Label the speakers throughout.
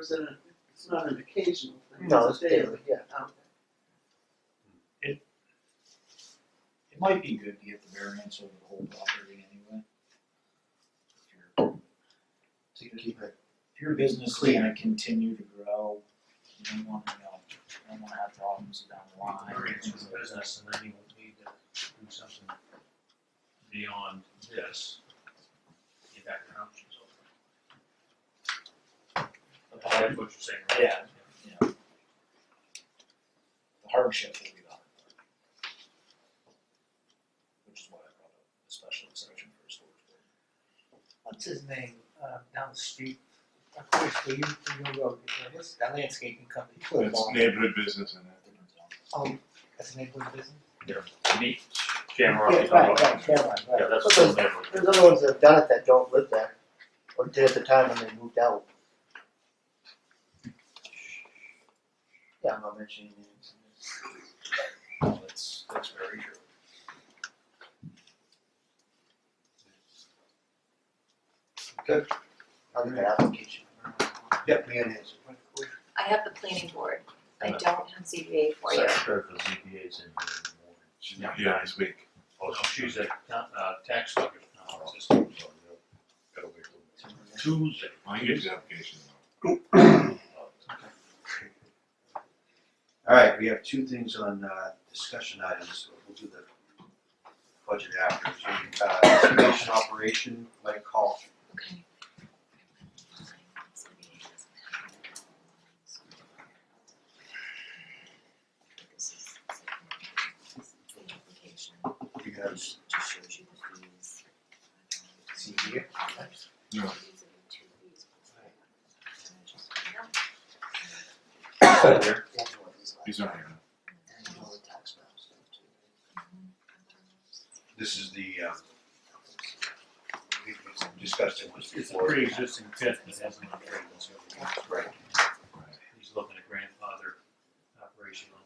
Speaker 1: is it a, it's not an occasional thing,
Speaker 2: No, it's
Speaker 1: it's a
Speaker 2: daily,
Speaker 1: daily.
Speaker 2: yeah.
Speaker 1: Oh,
Speaker 3: It might be good to get the variance over the whole property anyway. If your-
Speaker 2: Oh. to keep it.
Speaker 3: If your business is gonna continue to grow, you don't want, you know, you don't wanna have problems down the
Speaker 4: Well,
Speaker 3: line.
Speaker 4: Variance for the business and then you would need to do something beyond this. Get that options open. That's what you're saying, right?
Speaker 3: Yeah. The hardship will be the hard part. Which is why I brought up a special exception for a storage building.
Speaker 5: what's his name, uh, down the street, across the you, you road, what's that landscaping company?
Speaker 6: It's neighborhood business in it.
Speaker 3: Different zone.
Speaker 5: Oh, that's an neighborhood business?
Speaker 4: Neat.
Speaker 5: Yeah,
Speaker 4: Shamrock.
Speaker 5: right, right, Caroline, right.
Speaker 4: Yeah, that's
Speaker 2: But
Speaker 4: still
Speaker 2: there's,
Speaker 4: never.
Speaker 2: there's other ones that have done it that don't live there, or did at the time when they moved out. Yeah, I'm not mentioning names.
Speaker 3: No, that's, that's very true.
Speaker 2: I'll leave the application. Yep, me and his.
Speaker 7: I have the planning board, I
Speaker 4: Yeah.
Speaker 7: don't have ZBA for you.
Speaker 4: Secretary for ZBA is in here in the morning.
Speaker 6: Yeah, this week.
Speaker 4: Oh, no, she's at, uh, tax collector's conference Tuesday.
Speaker 6: I can get the application.
Speaker 8: All right, we have two things on uh, discussion items, but we'll do the budget after. So, uh, Excavation operation, like call.
Speaker 7: Okay.
Speaker 8: You guys see here?
Speaker 6: No. He's not here.
Speaker 2: And all the tax maps stuff
Speaker 8: This is the, uh, we we discussed it once
Speaker 4: It's a
Speaker 8: before.
Speaker 4: pre-existing pit that hasn't been traded, so
Speaker 8: Right.
Speaker 4: he's looking at grandfather operation on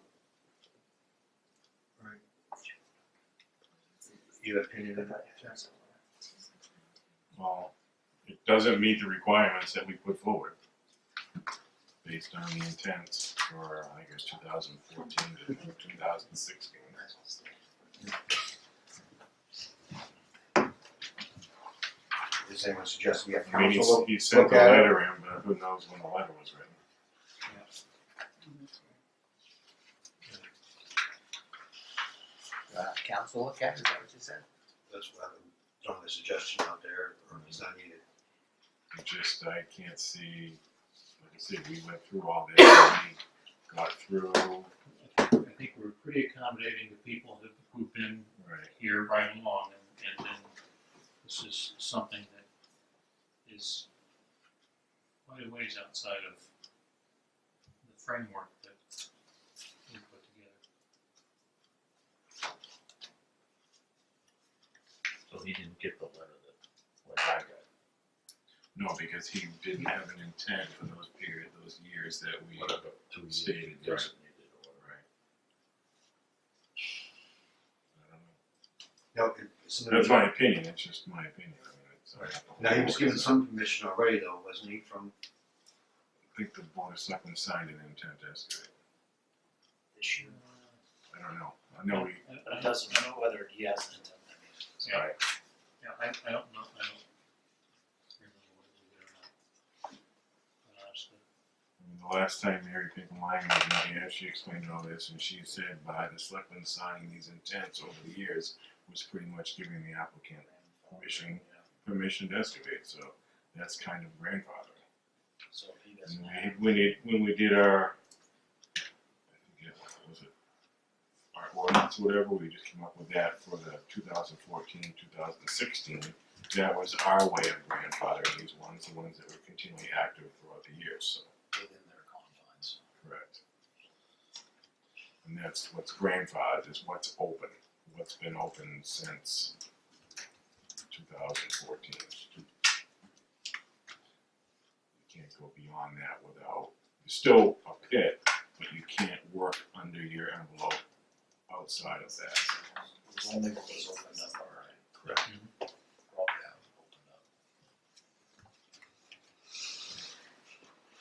Speaker 8: You have opinion on that?
Speaker 6: Well, it doesn't meet the requirements that we put forward. Based on the intent for, I guess, two thousand fourteen to two thousand sixteen.
Speaker 8: Does anyone suggest we have
Speaker 6: I mean,
Speaker 8: council?
Speaker 6: he's, he sent the
Speaker 8: Okay.
Speaker 6: letter in, but who knows when the letter was written.
Speaker 5: Uh, council look at it, is that what you said?
Speaker 8: That's what I'm throwing the suggestion out there, or is that needed?
Speaker 6: It just, I can't see, like I said, we went through all this, we got through,
Speaker 4: I think we're pretty accommodating to people who- who've been
Speaker 6: right,
Speaker 4: here right along, and, and then this is something that is quite a ways outside of the framework that we put together.
Speaker 9: So he didn't get the letter that, like I got,
Speaker 6: no, because he didn't have an intent for those period, those years that we
Speaker 9: whatever, two years
Speaker 6: stated, right, right.
Speaker 9: designated or whatever.
Speaker 6: I don't know.
Speaker 8: No, it- it's in the-
Speaker 6: That's my opinion, it's just my opinion. I mean, it's- uh, I have to-
Speaker 8: Now, he was given some permission already though, wasn't he, from
Speaker 6: I think the board of selectmen signed an intent to excavate.
Speaker 3: This year,
Speaker 6: I don't know, I know we,
Speaker 3: it doesn't matter whether he has an intent, I mean,
Speaker 4: Yeah, yeah, I, I don't know, I don't remember whether we did or not. But honestly,
Speaker 6: I mean, the last time Mary Pickle Lang was not here, she explained all this, and she said by the selectmen signing these intents over the years was pretty much giving the applicant permission, permission to excavate, so that's kind of grandfathering.
Speaker 3: so if he doesn't have.
Speaker 6: And we, when it, when we did our, I forget, what was it? Our ordinance, whatever, we just came up with that for the 2014-2016. That was our way of grandfathering these ones, the ones that were continually active throughout the years, so,
Speaker 3: within their confines.
Speaker 6: correct. And that's what's grandfathered, is what's open, what's been open since two thousand fourteen. You can't go beyond that without, it's still a pit, but you can't work under your envelope outside of that.
Speaker 3: It was only what was opened up already.
Speaker 6: Correct.
Speaker 4: Mhm.